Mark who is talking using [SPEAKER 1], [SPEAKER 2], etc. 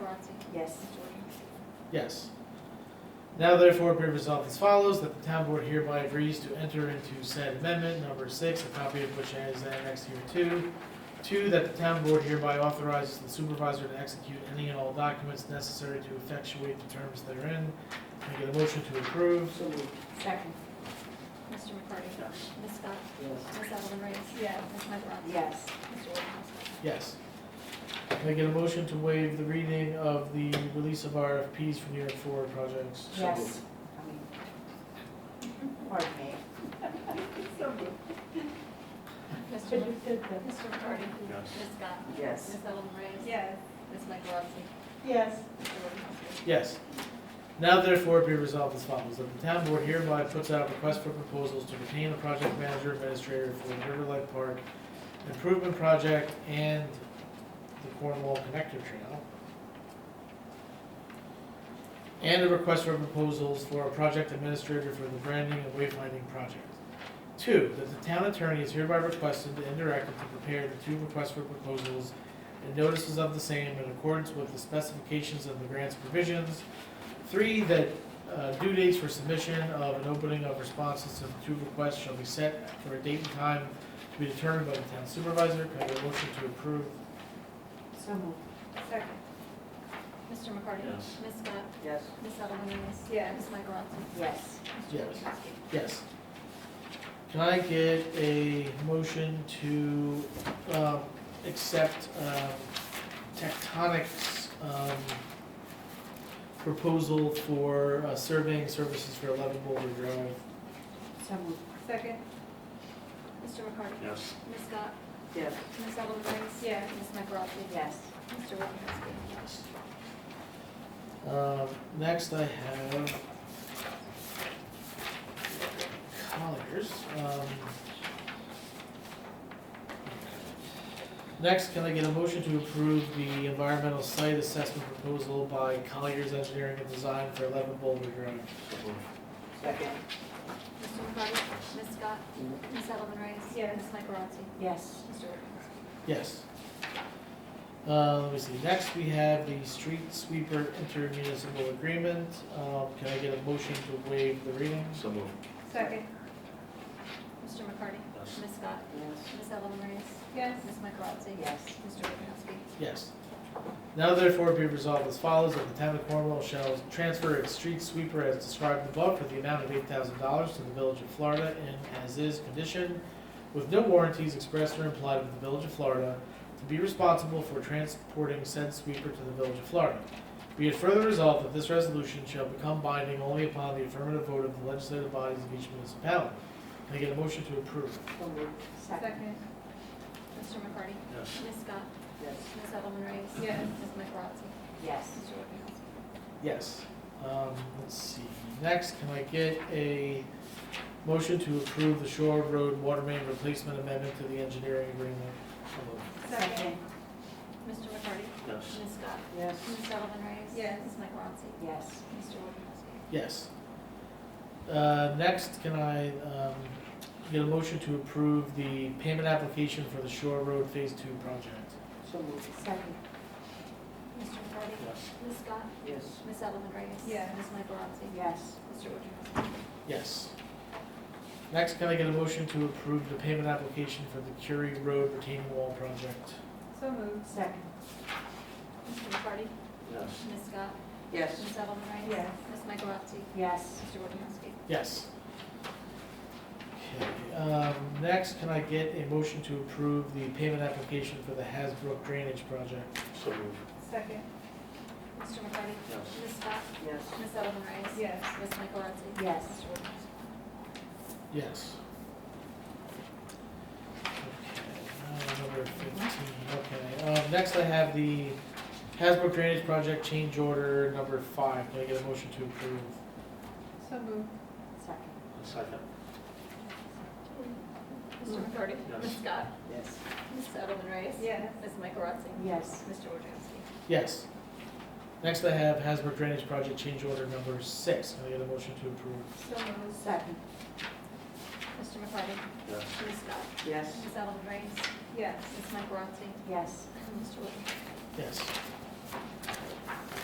[SPEAKER 1] Yes.
[SPEAKER 2] Yes. Now therefore be resolved as follows, that the town board hereby agrees to enter into said amendment number six, a copy of which is annexed here too. Two, that the town board hereby authorizes the supervisor to execute any and all documents necessary to effectuate the terms therein. Can I get a motion to approve?
[SPEAKER 3] So moved.
[SPEAKER 1] Second.
[SPEAKER 4] Mr. McCarty? Ms. Scott?
[SPEAKER 3] Yes.
[SPEAKER 4] Ms. Edelman Reyes?
[SPEAKER 1] Yes.
[SPEAKER 4] Ms. Michaelozzi?
[SPEAKER 1] Yes.
[SPEAKER 4] Mr. Wojciechowski?
[SPEAKER 2] Yes. Can I get a motion to waive the reading of the release of RFPs for New York Forward projects?
[SPEAKER 3] So
[SPEAKER 1] Yes.
[SPEAKER 3] moved.
[SPEAKER 1] I mean, Pardon me.
[SPEAKER 4] Mr. Mc- Mr. McCarty?
[SPEAKER 5] Yes.
[SPEAKER 4] Ms. Scott?
[SPEAKER 3] Yes.
[SPEAKER 4] Ms. Edelman Reyes?
[SPEAKER 1] Yes.
[SPEAKER 4] Ms. Michaelozzi?
[SPEAKER 1] Yes.
[SPEAKER 4] Mr. Wojciechowski?
[SPEAKER 2] Yes. Now therefore be resolved as follows, that the town board hereby puts out a request for proposals to retain a project manager administrator for the Riverlight Park improvement project and the Cornwall Connector Trail. And a request for proposals for a project administrator for the branding and wayfinding project. Two, that the town attorney is hereby requested and directed to prepare the two requests for proposals and notices of the same in accordance with the specifications of the grant's provisions. Three, that uh, due dates for submission of and opening of responses to the two requests shall be set for a date and time to be determined by the town supervisor. Can I get a motion to approve?
[SPEAKER 1] So moved. Second.
[SPEAKER 4] Mr. McCarty?
[SPEAKER 5] Yes.
[SPEAKER 4] Ms. Scott?
[SPEAKER 3] Yes.
[SPEAKER 4] Ms. Edelman Reyes?
[SPEAKER 1] Yes.
[SPEAKER 4] Ms. Michaelozzi?
[SPEAKER 1] Yes.
[SPEAKER 4] Mr.
[SPEAKER 2] Yes.
[SPEAKER 4] Wojciechowski?
[SPEAKER 2] Yes. Can I get a motion to um, accept um, Tectonic's um, proposal for uh, surveying services for 11 Boulder Drive?
[SPEAKER 1] So moved. Second.
[SPEAKER 4] Mr. McCarty?
[SPEAKER 5] Yes.
[SPEAKER 4] Ms. Scott?
[SPEAKER 3] Yes.
[SPEAKER 4] Ms. Edelman Reyes?
[SPEAKER 1] Yes.
[SPEAKER 4] Ms. Michaelozzi?
[SPEAKER 1] Yes.
[SPEAKER 4] Mr. Wojciechowski?
[SPEAKER 2] Um, next I have Colliers. Um, next, can I get a motion to approve the environmental site assessment proposal by Colliers Engineering and Design for eleven Boulder Drive?
[SPEAKER 5] So moved.
[SPEAKER 1] Second.
[SPEAKER 4] Mr. McCarty? Ms. Scott?
[SPEAKER 5] Mm-hmm.
[SPEAKER 4] Ms. Edelman Reyes?
[SPEAKER 1] Yes.
[SPEAKER 4] Ms. Michaelozzi?
[SPEAKER 1] Yes.
[SPEAKER 4] Mr. Wojciechowski?
[SPEAKER 2] Yes. Uh, let me see, next we have the street sweeper intermunicipal agreement. Um, can I get a motion to waive the reading?
[SPEAKER 5] So moved.
[SPEAKER 1] Second.
[SPEAKER 4] Mr. McCarty?
[SPEAKER 5] Yes.
[SPEAKER 4] Ms. Scott?
[SPEAKER 3] Yes.
[SPEAKER 4] Ms. Edelman Reyes?
[SPEAKER 1] Yes.
[SPEAKER 4] Ms. Michaelozzi?
[SPEAKER 1] Yes.
[SPEAKER 4] Mr. Wojciechowski?
[SPEAKER 2] Yes. Now therefore be resolved as follows, that the town of Cornwall shall transfer its street sweeper as described above for the amount of eight thousand dollars to the village of Florida in as-is condition with no warranties expressed or implied with the village of Florida to be responsible for transporting said sweeper to the village of Florida. Be it further resolved that this resolution shall become binding only upon the affirmative vote of the legislative bodies of each municipality. Can I get a motion to approve?
[SPEAKER 3] So moved.
[SPEAKER 1] Second.
[SPEAKER 4] Mr. McCarty?
[SPEAKER 5] Yes.
[SPEAKER 4] Ms. Scott?
[SPEAKER 3] Yes.
[SPEAKER 4] Ms. Edelman Reyes?
[SPEAKER 1] Yes.
[SPEAKER 4] Ms. Michaelozzi?
[SPEAKER 1] Yes.
[SPEAKER 4] Mr. Wojciechowski?
[SPEAKER 2] Yes. Um, let's see, next, can I get a motion to approve the Shore Road Water Main Replacement Amendment to the engineering agreement?
[SPEAKER 1] Second.
[SPEAKER 4] Mr. McCarty?
[SPEAKER 5] Yes.
[SPEAKER 4] Ms. Scott?
[SPEAKER 3] Yes.
[SPEAKER 4] Ms. Edelman Reyes?
[SPEAKER 1] Yes.
[SPEAKER 4] Ms. Michaelozzi?
[SPEAKER 1] Yes.
[SPEAKER 4] Mr. Wojciechowski?
[SPEAKER 2] Yes. Uh, next, can I, um, get a motion to approve the payment application for the Shore Road Phase Two project?
[SPEAKER 3] So moved.
[SPEAKER 1] Second.
[SPEAKER 4] Mr. McCarty?
[SPEAKER 5] Yes.
[SPEAKER 4] Ms. Scott?
[SPEAKER 3] Yes.
[SPEAKER 4] Ms. Edelman Reyes?
[SPEAKER 1] Yes.
[SPEAKER 4] Ms. Michaelozzi?
[SPEAKER 1] Yes.
[SPEAKER 4] Mr. Wojciechowski?
[SPEAKER 2] Yes. Next, can I get a motion to approve the payment application for the Curie Road retaining wall project?
[SPEAKER 1] So moved. Second.
[SPEAKER 4] Mr. McCarty?
[SPEAKER 5] Yes.
[SPEAKER 4] Ms. Scott?
[SPEAKER 3] Yes.
[SPEAKER 4] Ms. Edelman Reyes?
[SPEAKER 1] Yes.
[SPEAKER 4] Ms. Michaelozzi?
[SPEAKER 1] Yes.
[SPEAKER 4] Mr. Wojciechowski?
[SPEAKER 2] Yes. Okay, um, next, can I get a motion to approve the payment application for the Hasbrook Drainage Project?
[SPEAKER 5] So moved.
[SPEAKER 1] Second.
[SPEAKER 4] Mr. McCarty?
[SPEAKER 5] Yes.
[SPEAKER 4] Ms. Scott?
[SPEAKER 3] Yes.
[SPEAKER 4] Ms. Edelman Reyes?
[SPEAKER 1] Yes.
[SPEAKER 4] Ms. Michaelozzi?
[SPEAKER 1] Yes.
[SPEAKER 4] Mr. Wojciechowski?
[SPEAKER 2] Yes. Okay, now uh, number fifteen, okay, um, next I have the Hasbrook Drainage Project change order number five, can I get a motion to approve?
[SPEAKER 1] So moved. Second.
[SPEAKER 5] Second.
[SPEAKER 4] Mr. McCarty?
[SPEAKER 5] Yes.
[SPEAKER 4] Ms. Scott?
[SPEAKER 3] Yes.
[SPEAKER 4] Ms. Edelman Reyes?
[SPEAKER 1] Yes.
[SPEAKER 4] Ms. Michaelozzi?
[SPEAKER 1] Yes.
[SPEAKER 4] Mr. Wojciechowski?
[SPEAKER 2] Yes. Next I have Hasbrook Drainage Project change order number six, can I get a motion to approve?
[SPEAKER 1] So moved. Second.
[SPEAKER 4] Mr. McCarty?
[SPEAKER 5] Yes.
[SPEAKER 4] Ms. Scott?
[SPEAKER 3] Yes.
[SPEAKER 4] Ms. Edelman Reyes?
[SPEAKER 1] Yes.
[SPEAKER 4] Ms. Michaelozzi?
[SPEAKER 1] Yes.
[SPEAKER 4] Mr. Wojciechowski?
[SPEAKER 2] Yes.